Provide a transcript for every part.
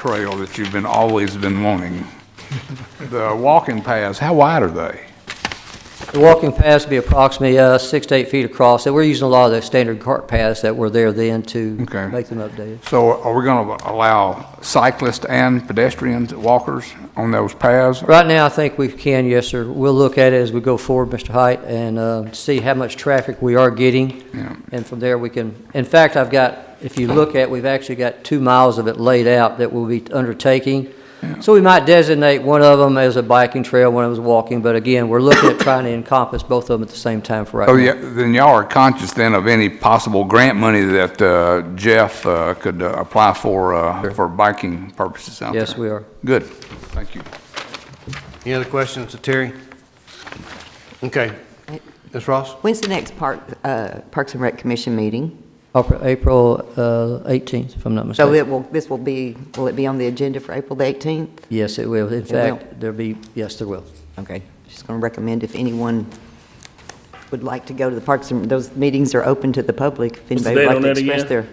trail that you've been, always been wanting. The walking paths, how wide are they? The walking paths would be approximately uh, six to eight feet across. So We're using a lot of the standard cart paths that were there then to Okay. make them updated. So are we going to allow cyclists and pedestrians, walkers on those paths? Right now, I think we can, yes, sir. We'll look at it as we go forward, Mr. Height, and uh, see how much traffic we are getting. Yeah. And from there, we can, in fact, I've got, if you look at, we've actually got two miles of it laid out that we'll be undertaking. So we might designate one of them as a biking trail, one of them as walking, but again, we're looking at trying to encompass both of them at the same time for right now. Oh, yeah, then y'all are conscious then of any possible grant money that uh, Jeff uh, could uh, apply for, uh, for biking purposes out there? Yes, we are. Good, thank you. Any other questions to Terry? Okay. Ms. Ross? When's the next Park, uh, Parks and Rec Commission meeting? April- April uh, 18th, if I'm not mistaken. So it will, this will be, will it be on the agenda for April the 18th? Yes, it will. In will. fact, there'll be, yes, there will. Okay, just going to recommend if anyone would like to go to the Parks and, those meetings are open to the public. If What's the anybody would like date on to that express again? their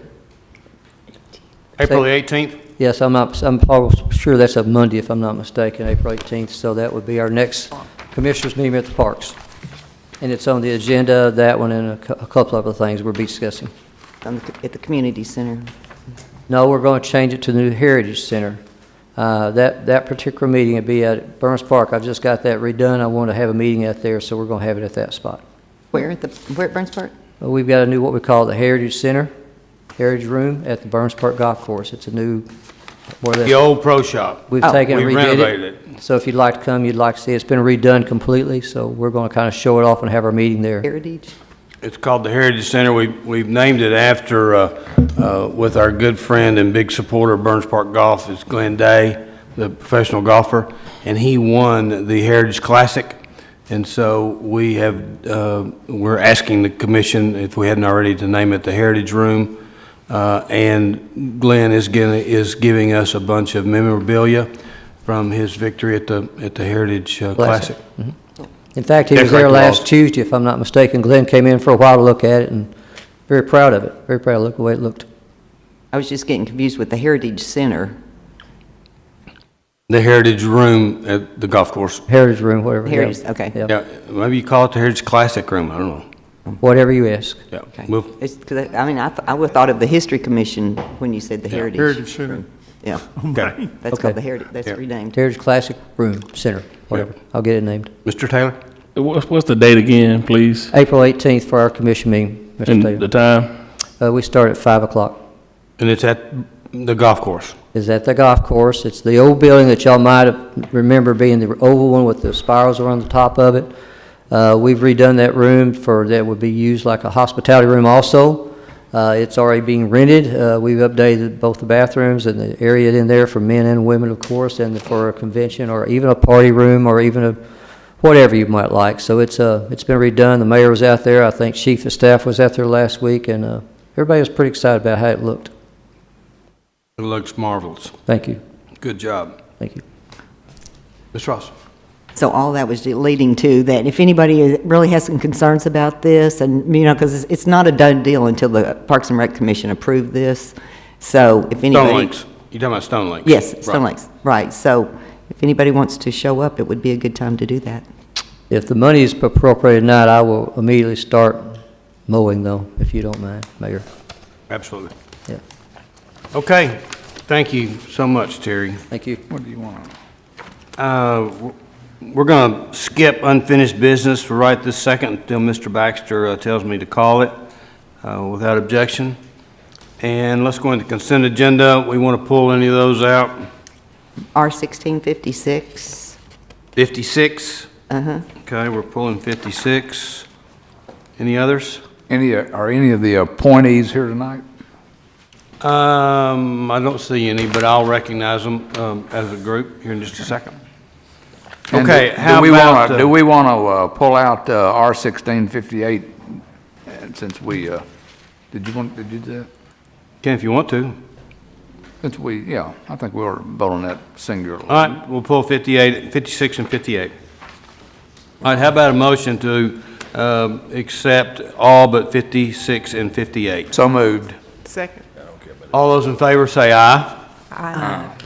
April the 18th? Yes, I'm not, I'm almost sure that's a Monday, if I'm not mistaken, April 18th, so that would be our next commissioners' meeting at the parks. And it's on the agenda, that one and a cou- a couple other things we'll be discussing. on the- At the community center. No, we're going to change it to the New Heritage Center. Uh, That, that particular meeting would be at Burns Park. I've just got that redone. I want to have a meeting out there, so we're going to have it at that spot. Where at the, where at Burns Park? Uh, We've got a new, what we call the Heritage Center, Heritage Room at the Burns Park Golf Course. It's a new, more than. The old pro shop. We've Oh. taken and We've redid renovated it. So if you'd like to come, you'd like to see, it. it's been redone completely, so we're going to kind of show it off and have our meeting there. Heritage? It's called the Heritage Center. We- We've named it after, uh, uh, with our good friend and big supporter of Burns Park Golf, is Glenn Day, the professional golfer, and he won the Heritage Classic. And so we have, uh, we're asking the commission, if we hadn't already, to name it the Heritage Room. Uh, And Glenn is gonna- is giving us a bunch of memorabilia from his victory at the at the Heritage uh, Classic. Classic. In fact, he was Decorate there the last walls. Tuesday, if I'm not mistaken. Glenn came in for a while to look at it and very proud of it, very proud of the way it looked. I was just getting confused with the Heritage Center. The Heritage Room at the golf course. Heritage Room, whatever. yeah. Heritage, okay. Yeah, Yeah, maybe you call it the Heritage Classic Room, I don't know. whatever you ask. Yeah, Okay. move, It's, 'cause I I mean, I, th- I would've thought of the History Commission when you said the Heritage. Heritage Center. Yeah, okay. that's Okay. called the Heritage, that's Yeah. renamed. Heritage Classic Room Center, whatever. I'll get it named. Mr. Taylor? What's, what's the date again, please? April 18th for our commission meeting, Mr. And Taylor. the time? Uh, We start at 5 o'clock. And it's at the golf course. is at the golf course. It's the old building that y'all might have- remember being the oval one with the spirals around the top of it. Uh, We've redone that room for, that would be used like a hospitality room also. Uh, It's already being rented. Uh, We've updated both the bathrooms and the area in there for men and women, of course, and for a convention or even a party room or even a, whatever you might like. So it's, uh, it's been redone. The mayor was out there. I think chief of staff was out there last week, and uh, everybody was pretty excited about how it looked. It looks marvelous. Thank you, Good job. thank you. Ms. Ross? So all that was leading to that if anybody really has some concerns about this, and, you know, because it's not a done deal until the Parks and Rec Commission approved this, so if anybody. Stone Lakes. You're talking about Stone Lakes? Yes, Stone Right. Lakes, right. So if anybody wants to show up, it would be a good time to do that. If the money is appropriated tonight, I will immediately start mowing though, if you don't mind, Mayor. Absolutely. Yeah, Okay, thank you so much, Terry. thank you. What do you want? Uh, w- We're going to skip unfinished business for right this second until Mr. Baxter uh, tells me to call it uh, without objection. And let's go into consent agenda. We want to pull any of those out. R sixteen fifty-six, 56? uh-huh. Okay, we're pulling 56. Any others? Any, uh, are any of the appointees here tonight? Um, I don't see any, but I'll recognize them um, as a group here in just a second. And do- Okay, do how we wanna- about, uh, Do we want to pull out uh, R-1658 uh, since we, uh, did you want, did you do that? Ken, if you want to. Since we, yeah, I think we were voting that singularly. All right, we'll pull 58, 56 and 58. All right, how about a motion to um, accept all but 56 and 58? So moved. Second. All those in favor say aye.